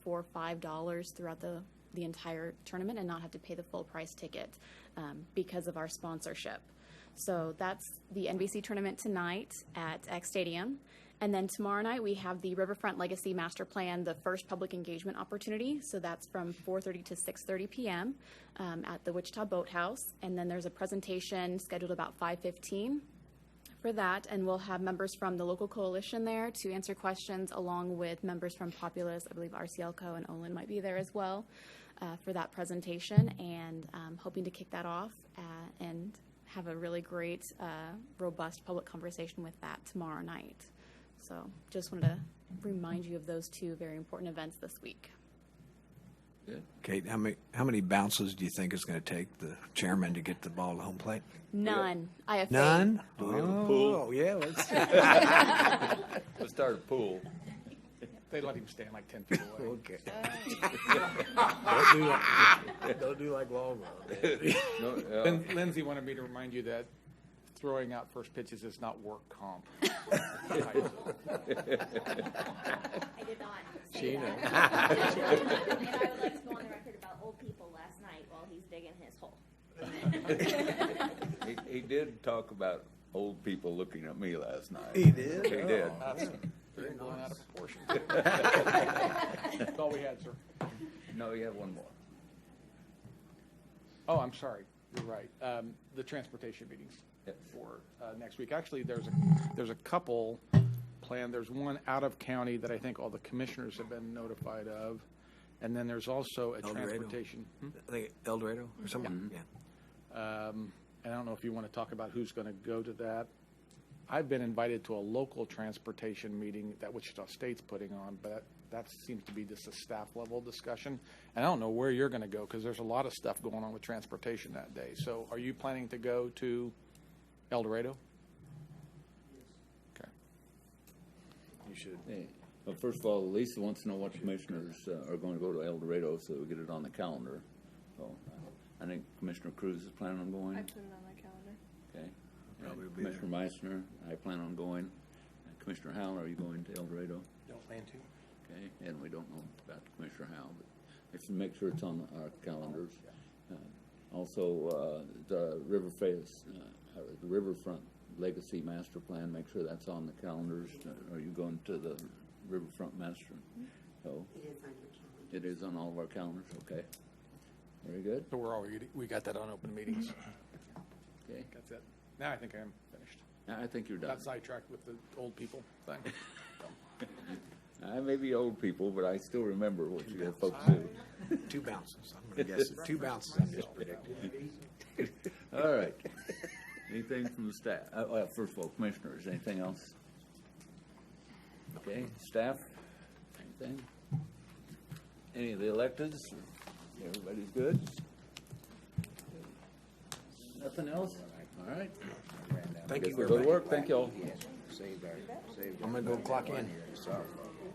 four, five dollars throughout the, the entire tournament and not have to pay the full price ticket um, because of our sponsorship. So that's the NBC tournament tonight at X Stadium. And then tomorrow night we have the Riverfront Legacy Master Plan, the first public engagement opportunity. So that's from 4:30 to 6:30 p.m. um, at the Wichita Boathouse. And then there's a presentation scheduled about 5:15 for that, and we'll have members from the local coalition there to answer questions, along with members from Populous, I believe RCLCO and Olin might be there as well uh, for that presentation, and um, hoping to kick that off uh, and have a really great, uh, robust public conversation with that tomorrow night. So just wanted to remind you of those two very important events this week. Kate, how many how many bounces do you think it's going to take the chairman to get the ball to home plate? None. IFA. None. pool. Oh yeah, let's Let's start a pool. They let him stand like ten feet away. okay. don't, do like, don't do like Walmart. No, uh, Lin- Lindsay wanted me to remind you that throwing out first pitches is not work comp. I did not. She say that. And I would like to go on the record about old people last night while he's digging his hole. he, he did talk about old people looking at me last night. He did? Oh. He did. They're blown out of proportion. That's all we had, sir. No, you have one more. Oh, I'm sorry. You're right. Um, the transportation meetings Yep. for uh, next week. Actually, there's a, there's a couple planned. There's one out of county that I think all the commissioners have been notified of. And then there's also a El Dorado. transportation. Hmm? I think El Dorado or something. Yeah. Um, and I don't know if you want to talk about who's going to go to that. I've been invited to a local transportation meeting that Wichita State's putting on, but that seems to be just a staff level discussion. And I don't know where you're going to go because there's a lot of stuff going on with transportation that day. So are you planning to go to El Dorado? Okay. You should. Hey, Well, first of all, Lisa wants to know what commissioners uh, are going to go to El Dorado so we get it on the calendar. So I think Commissioner Cruz is planning on going. I put it on my calendar. Okay. Probably And be there. Commissioner Meissner, I plan on going. And Commissioner Howell, are you going to El Dorado? Don't plan to. Okay, and we don't know about Commissioner Howell, but if you make sure it's on our calendars. Uh, Also, uh, the River Face, uh, uh, the Riverfront Legacy Master Plan, make sure that's on the calendars. Uh, Are you going to the Riverfront Master? No, it is on all of our calendars, okay. Very good, So we're already, we got that on open meetings. okay. That's it. Now I think I am finished. I I think you're done. Got sidetracked with the old people thing. I may be old people, but I still remember what you folks do. Two bounces. I'm going to guess it. Two bounces. I'm just predicting. All right. Anything from the staff? Uh, well, first of all, commissioners, anything else? Okay, staff, anything? Any of the electeds? Everybody's good? Nothing else? All right. Thank Guess you very we'll go much. to work. Thank you all. I'm going to go clock in.